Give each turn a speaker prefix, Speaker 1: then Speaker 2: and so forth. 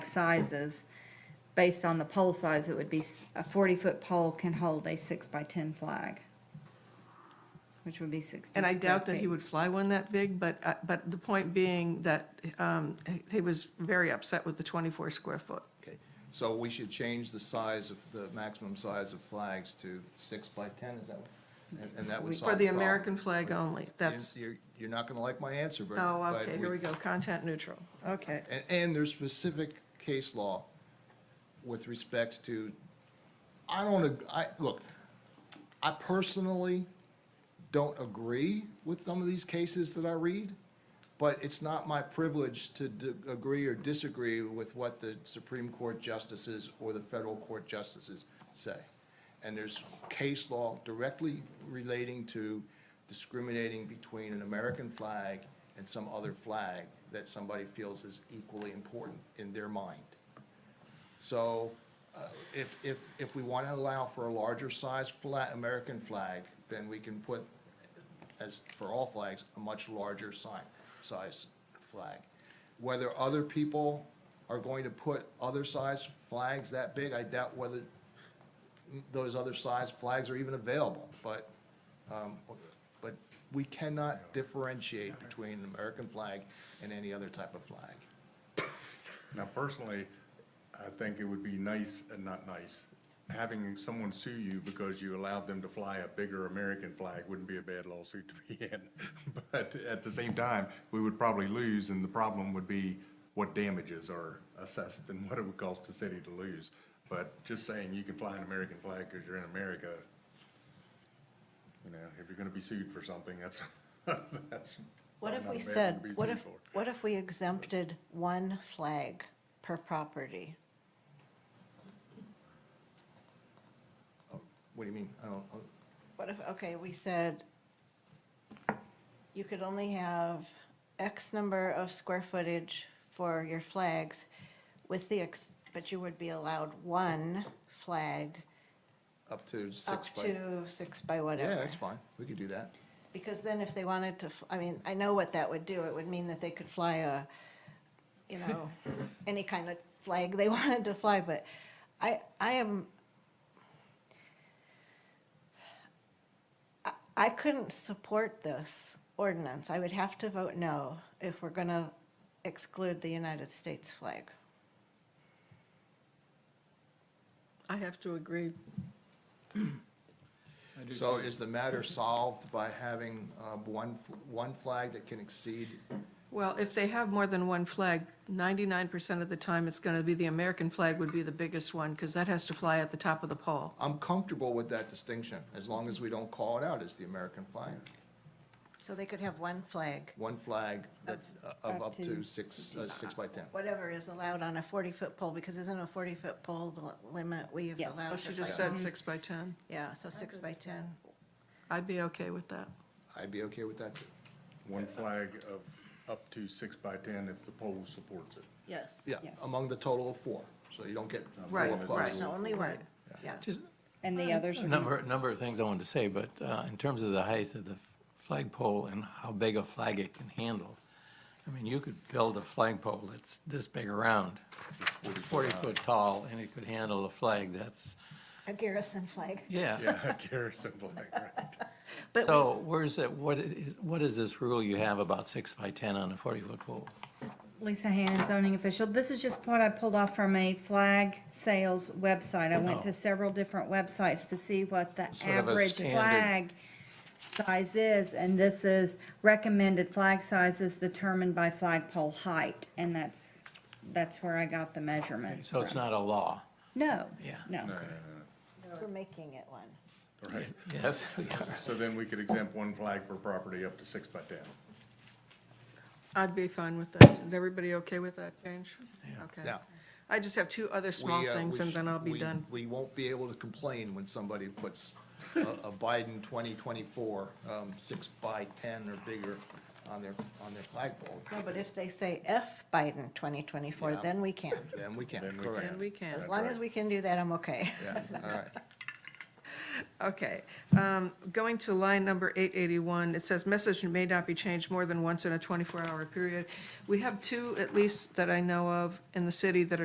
Speaker 1: sizes. Based on the pole size, it would be, s- a forty-foot pole can hold a six by ten flag, which would be sixty
Speaker 2: And I
Speaker 1: square
Speaker 2: doubt that he
Speaker 1: feet.
Speaker 2: would fly one that big, but, uh, but the point being that um, he- he was very upset with the 24 square foot.
Speaker 3: Okay, so we should change the size of, the maximum size of flags to six by 10, is that, and- and that would solve
Speaker 2: For the
Speaker 3: problem.
Speaker 2: American flag only, that's,
Speaker 3: You're, you're not going to like my answer, but.
Speaker 2: oh,
Speaker 3: but
Speaker 2: okay, here we go, content neutral, okay.
Speaker 3: And, and there's specific case law with respect to, I don't, ag- I, look, I personally don't agree with some of these cases that I read, but it's not my privilege to d- agree or disagree with what the Supreme Court justices or the federal court justices say. And there's case law directly relating to discriminating between an American flag and some other flag that somebody feels is equally important in their mind. So uh, if, if, if we want to allow for a larger size flag, American flag, then we can put, as for all flags, a much larger sign, size flag. Whether other people are going to put other size flags that big, I doubt whether those other size flags are even available. But, um, but we cannot differentiate between an American flag and any other type of flag.
Speaker 4: Now, personally, I think it would be nice, uh, not nice, having someone sue you because you allowed them to fly a bigger American flag wouldn't be a bad lawsuit to be in. But at the same time, we would probably lose, and the problem would be what damages are assessed and what it would cost the city to lose. But just saying you can fly an American flag because you're in America, you know, if you're gonna be sued for something, that's, that's.
Speaker 5: What if
Speaker 4: not a
Speaker 5: we
Speaker 4: bad one
Speaker 5: said,
Speaker 4: to be
Speaker 5: what
Speaker 4: sued
Speaker 5: if,
Speaker 4: for.
Speaker 5: what if we exempted one flag per property?
Speaker 3: What do you mean? I don't,
Speaker 5: What if, okay, we said you could only have X number of square footage for your flags with the, ex but you would be allowed one flag
Speaker 3: up to
Speaker 5: up
Speaker 3: six by.
Speaker 5: to six by
Speaker 3: Yeah,
Speaker 5: whatever.
Speaker 3: that's fine. We could do that.
Speaker 5: Because then if they wanted to, f- I mean, I know what that would do. It would mean that they could fly a, you know, any kind of flag they wanted to fly, but I, I am, I- I couldn't support this ordinance. I would have to vote no if we're going to exclude the United States flag.
Speaker 2: I have to agree.
Speaker 3: So is the matter solved by having uh, one, fl- one flag that can exceed?
Speaker 2: Well, if they have more than one flag, 99% of the time, it's going to be the American flag would be the biggest one, because that has to fly at the top of the pole.
Speaker 3: I'm comfortable with that distinction, as long as we don't call it out as the American flag.
Speaker 5: So they could have one flag,
Speaker 3: One flag that, uh, of up to six, uh, six by 10.
Speaker 5: whatever is allowed on a 40-foot pole, because isn't a 40-foot pole the limit we've
Speaker 1: Yes.
Speaker 5: allowed?
Speaker 2: Oh,
Speaker 5: for
Speaker 2: she just
Speaker 5: flag-
Speaker 2: said six by 10.
Speaker 5: Yeah, so six by 10.
Speaker 2: I'd be okay with that.
Speaker 3: I'd be okay with that, too.
Speaker 4: One flag of up to six by ten if the poll supports it.
Speaker 5: Yes.
Speaker 3: Yeah,
Speaker 1: Yes.
Speaker 3: among the total of four, so you don't get four
Speaker 2: Right,
Speaker 3: plus.
Speaker 2: right.
Speaker 5: No, only one, yeah.
Speaker 2: Just,
Speaker 1: And the others
Speaker 6: uh, A
Speaker 1: would be
Speaker 6: number, a number of things I wanted to say, but uh, in terms of the height of the flagpole and how big a flag it can handle, I mean, you could build a flagpole that's this big around, 40 foot tall, and it could handle a flag that's,
Speaker 5: A Garrison flag.
Speaker 6: yeah.
Speaker 4: Yeah, Garrison flag, right.
Speaker 2: But-
Speaker 6: So where's that, what is, what is this rule you have about six by 10 on a 40 foot pole?
Speaker 1: Lisa Hannon, zoning official. This is just what I pulled off from a flag sales website. I went to
Speaker 6: Oh.
Speaker 1: several different websites to see what the
Speaker 6: Sort of a
Speaker 1: average
Speaker 6: standard.
Speaker 1: flag size is, and this is recommended flag sizes determined by flagpole height, and that's, that's where I got the measurement.
Speaker 6: So it's
Speaker 1: from.
Speaker 6: not a law.
Speaker 1: No.
Speaker 6: Yeah.
Speaker 1: No.
Speaker 5: We're making it one.
Speaker 4: Right,
Speaker 6: Yes, we are.
Speaker 4: so then we could exempt one flag per property up to six by ten.
Speaker 2: I'd be fine with that. Is everybody okay with that change? Okay.
Speaker 3: Yeah.
Speaker 2: I just have two other small
Speaker 3: We, uh,
Speaker 2: things
Speaker 3: we
Speaker 2: and then I'll be
Speaker 3: we-
Speaker 2: done.
Speaker 3: We won't be able to complain when somebody puts a a Biden 2024, um, six by 10 or bigger on their, on their flagpole.
Speaker 5: No, but if they say F Biden 2024,
Speaker 3: Yeah.
Speaker 5: then we can.
Speaker 3: Then we can,
Speaker 4: Then we
Speaker 3: correct.
Speaker 2: And we can.
Speaker 5: As long as we can do that, I'm okay.
Speaker 3: Yeah, all right.
Speaker 2: Okay, um, going to line number eight eighty-one, it says message may not be changed more than once in a twenty-four hour period. We have two, at least, that I know of in the city that are.